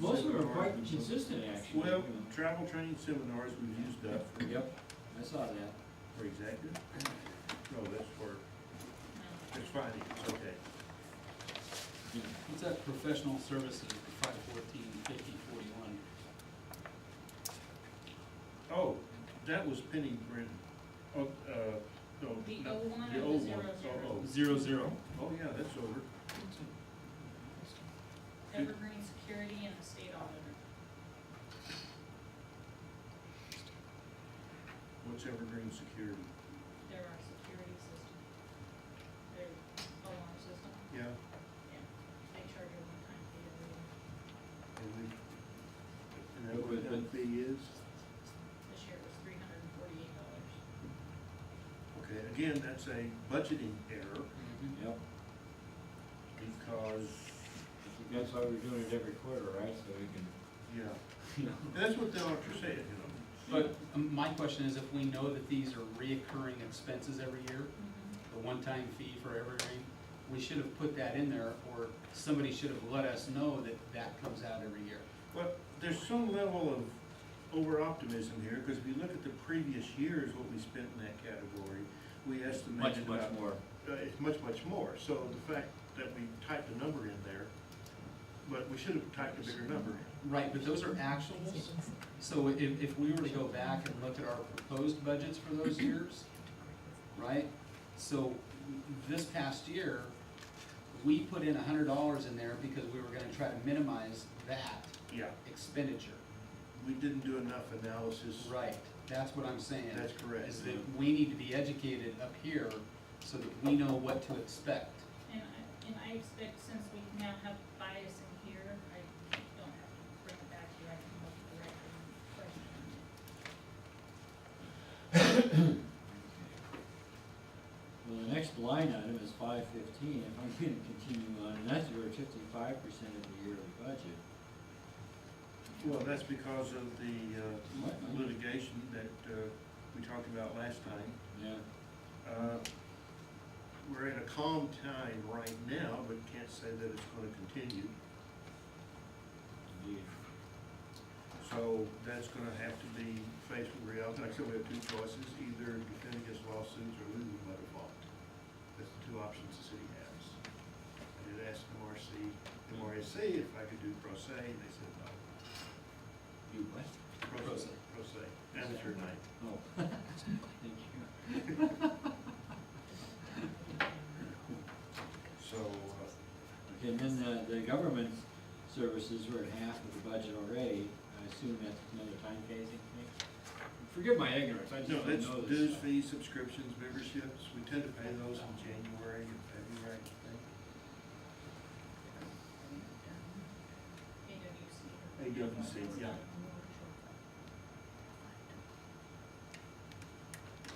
Most of them are quite seminars. consistent, actually. Well, travel training seminars, we've used that for, Yep, I saw that. for executive. No, that's for, that's fine, it's okay. What's that professional services, five fourteen, fifty, forty-one? Oh, that was Penny Brin, oh, uh, no. Um, The not- O one The or the old zero one. zero? Oh, oh. Zero, zero. Oh, yeah, that's over. Evergreen Security and the state auditor. What's Evergreen Security? They're our security system. Their alarm system, Yeah, yeah. They charge a one-time fee every year. and we, and that what that fee is? This year it was three hundred and forty-eight dollars. Okay, again, that's a budgeting error Yep, because, that's why we're doing it every quarter, right, so we can, yeah, you know. And that's what the auditor said, you know. But um, my question is if we know that these are reoccurring expenses every year, Mm-hmm. the one-time fee for evergreen, we should have put that in there or somebody should have let us know that that comes out every year. But there's some level of over-optimism here, because if you look at the previous years, what we spent in that category, we Much, estimated much about, more. uh, it's much, much more. So the fact that we typed a number in there, but we should have typed a bigger number in. Right, but those are actuals. So if, if we were to go back and look at our proposed budgets for those years, right? So this past year, we put in a hundred dollars in there because we were gonna try to minimize that Yeah, expenditure. we didn't do enough analysis. Right, that's what I'm saying. That's correct. Is that we need to be educated up here so that we know what to expect. And I, and I expect since we now have bias in here, I don't have to bring it back to you, I can look at the record and question. it. Well, the next line item is five fifteen, if I'm gonna continue on, and that's where fifty-five percent of the yearly budget. Well, that's because of the uh, litigation that uh, we talked about last time. Yeah, Uh, We're in a calm time right now, but can't say that it's gonna continue. indeed. So that's gonna have to be faced with reality. Like I said, we have two choices, either defend against lawsuits or lose by default. That's the two options the city has. I did ask MRC, MRSC if I could do pro se, and they said no. You what? Pro se. Pro se. That was your name. Oh. Thank you. So, uh, Okay, and then the, the government services were at half of the budget already, I assume that's another time phasing thing? Forgive my ignorance, I just no, don't know this that's stuff. dues, fees, subscriptions, memberships. We tend to pay those in January and February, I think. Mm-hmm. AWC. AWC, yeah.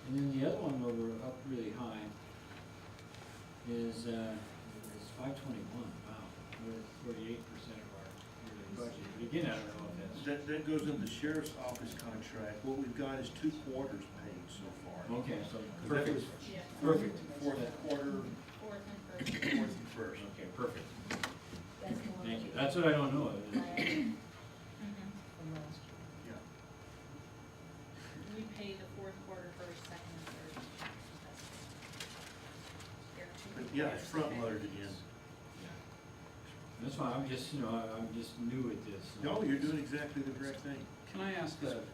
And then the other one where we're up really high is, uh, is five twenty-one, wow, we're forty-eight percent of our yearly budget, but again, I don't know if that's. That, that goes in the sheriff's office contract. What we've got is two quarters paid so far. Okay, so, That was Yeah, perfect. Fourth quarter, fourth and first. fourth and first. Okay, perfect, thank you, that's what I don't know, is- Mhm. Yeah. We pay the fourth quarter first, second, and third. There are two Um, But yeah, it's quarters. front loaded again. that's why I'm just, you know, I- I'm just new at this. so- No, you're doing exactly the correct thing. Can I ask a, a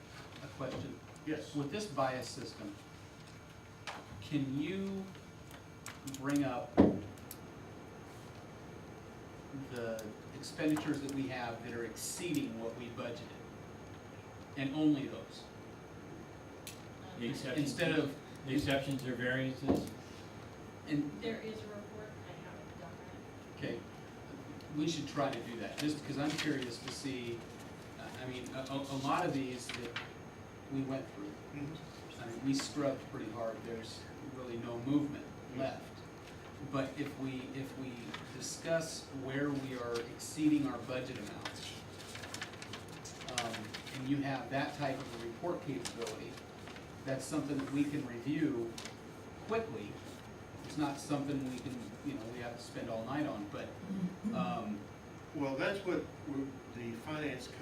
question? Yes. With this bias system, can you bring up the expenditures that we have that are exceeding what we budgeted? And only those, Um, The exceptions- instead of, The exceptions or variances? and, There is a report, I haven't done that. okay, we should try to do that, just because I'm curious to see, uh, I mean, a, a a lot of these that we went through, Mhm. I mean, we scrubbed pretty hard, there's really no movement left. But if we, if we discuss where we are exceeding our budget amounts, um, and you have that type of a report capability, that's something that we can review quickly. It's not something we can, you know, we have to spend all night on, but, um, Well, that's what, we're- the finance